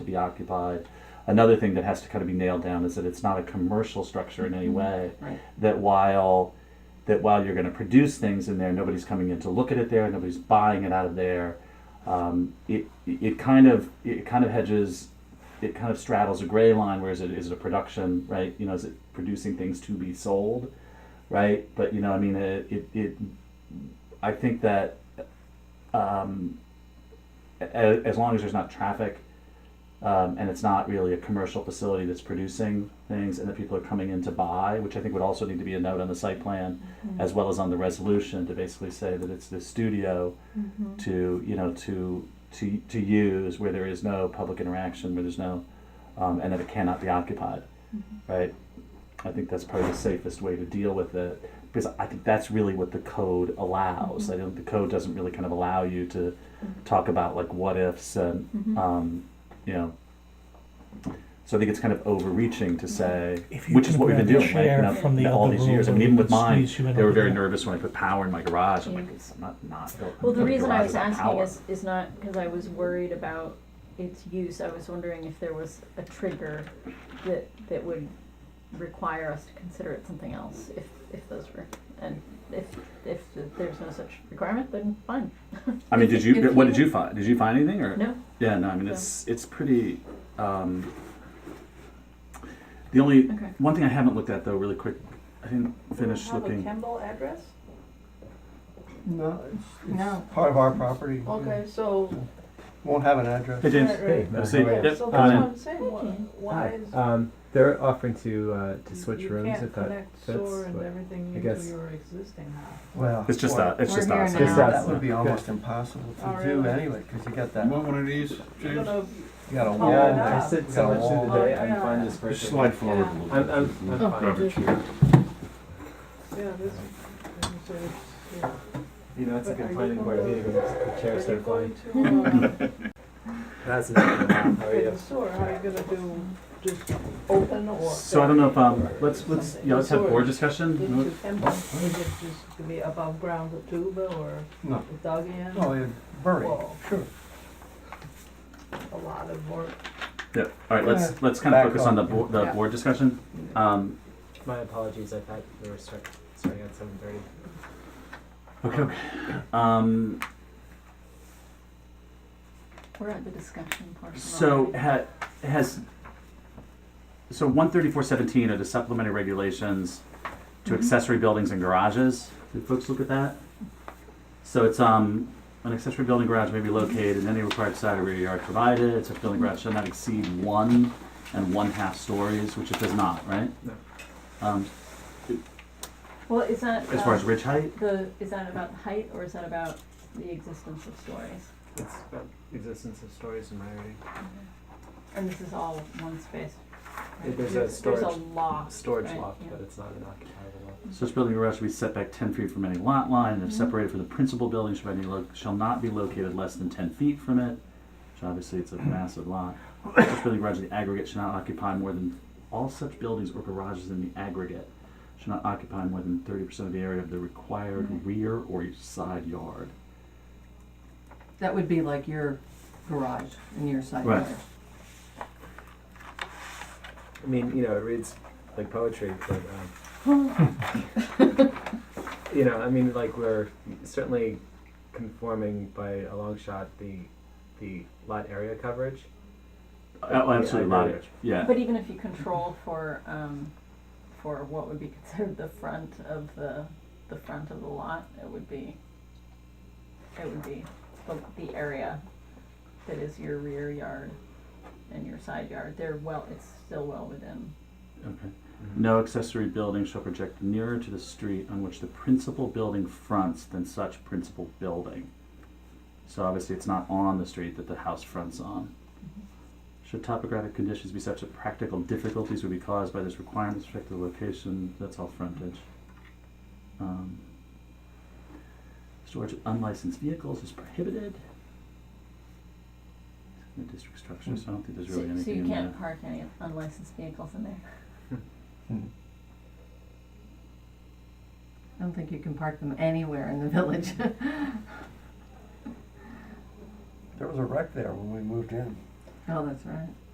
to be occupied. Another thing that has to kind of be nailed down is that it's not a commercial structure in any way. Right. That while that while you're going to produce things in there, nobody's coming in to look at it there, nobody's buying it out of there. Um, it it kind of it kind of hedges, it kind of straddles a gray line. Whereas it is it a production, right? You know, is it producing things to be sold, right? But you know, I mean, it it, it I think that um, as, as long as there's not traffic um, and it's not really a commercial facility that's producing things and that people are coming in to buy, which I think would also need to be a note on the site plan as well as on the resolution to basically say that it's the studio to, you know, to, to, to use where there is no public interaction, where there's no, um, and that it cannot be occupied, right? I think that's probably the safest way to deal with it because I think that's really what the code allows. I don't, the code doesn't really kind of allow you to talk about like what ifs and Mm-hmm. um, you know. So I think it's kind of overreaching to say, If you which is can what we've been grab a doing, right? You chair know, from the all other these room years. I and mean, we even can with mine, squeeze you in they were over very there. nervous when I put power in my garage. I'm like, Yeah. it's not not. Well, putting the a reason I garage was without asking power. is, is not because I was worried about its use, I was wondering if there was a trigger that, that would require us to consider it something else, if, if those were, and if, if there's no such requirement, then fine. I mean, did you? If What you- did you find? Did you find anything or? No, Yeah, no, I mean, it's, it's pretty, um, the only, Okay. one thing I haven't looked at though, really quick, I didn't finish Have a looking. Kemble address? No, it's, No. it's part of our property. Okay, so. Won't have an address. Hey, James. Right, Have a Hey, seat. right, Yep, So come that's in. what I'm saying, why, why Hi. is, Um, they're offering to uh, to you- switch you rooms can't if that connect fits. sewer and but- everything I into guess- your existing house. Well. It's just boy, that, it's We're just here us. now. Just us. That would be Good. almost impossible Oh, to do really? anyway, cause you got that, You you want one of these, You're James? gonna- got a Oh, wall. yeah, yeah. I sit Got so a much through the wall. day. Oh, I'm fine yeah. just Just working. slide forward a I'm little I'm, I'm bit. Oh, fine. Robert, here. yeah, this, and so it's, yeah. You know, it's a But are good you planning board going- meeting. when The chairs Are you are flying. going to, uh, That's enough. How are with you? the sewer, how are you gonna do, just open or? So I don't know if, um, let's, let's, yeah, let's have board Did discussion. you Kemble, is it just to be above ground with tube or No, with dug in? no, it's buried, Well, sure. a lot of work. Yeah, all right, let's, let's kind of Back focus on the up. board, the Yeah. board discussion. Um, My apologies. I thought we were start, starting at seven thirty. okay, okay. Um, we're at the discussion portion. So already. ha- has, so one thirty-four seventeen are the supplementary regulations to Mhm. accessory buildings and garages. Did folks look at that? So it's, um, an accessory building garage may be located in any required side or rear yard provided, Accessory building garage shall not exceed one and one-half stories, which it does not, right? No. Um, Well, is that, as far as um, ridge height, the, is that about the height, or is that about the existence of stories? It's about existence of stories in my area. Mm-hmm. And this is all one space? right? There's a There's a storage- loft, Storage right? loft, Yeah. but it's not an occupiable loft. such building or garage shall be set back ten feet from any lot line, and if Mm-hmm. Mhm. separated from the principal building, shall be lo- shall not be located less than ten feet from it, which obviously it's a Mm-hmm. massive lot. Such building garage in the aggregate should not occupy more than, all such buildings or garages in the aggregate should not occupy more than thirty percent of the area of the required Mm-hmm. Mhm. rear or side yard. That would be like your garage and your side Right. yard. I mean, you know, it reads like poetry, but um, you know, I mean, like we're certainly conforming by a long shot the the lot area coverage. Uh, Absolutely, Oh, Yeah, I lot agree. area. yeah. But even if you control for, um, for what would be considered the front of the, the front of the lot, it would be, it would be the, the area that is your rear yard and your side yard, they're well, it's still well within. Okay. No accessory building shall project nearer to the street on which the principal building fronts than such principal building. So obviously, it's not on the street that the house fronts on. Should topographic conditions be such that practical difficulties would be caused by this requirement with respect to the location, that's all frontage. Um, Storage of unlicensed vehicles is prohibited. In the district structure, so I don't think there's really So, so anything you in there. can't park any unlicensed vehicles in there. Hmm. I don't think you can park them anywhere in the village. There was a wreck there when we moved in. Oh, that's right.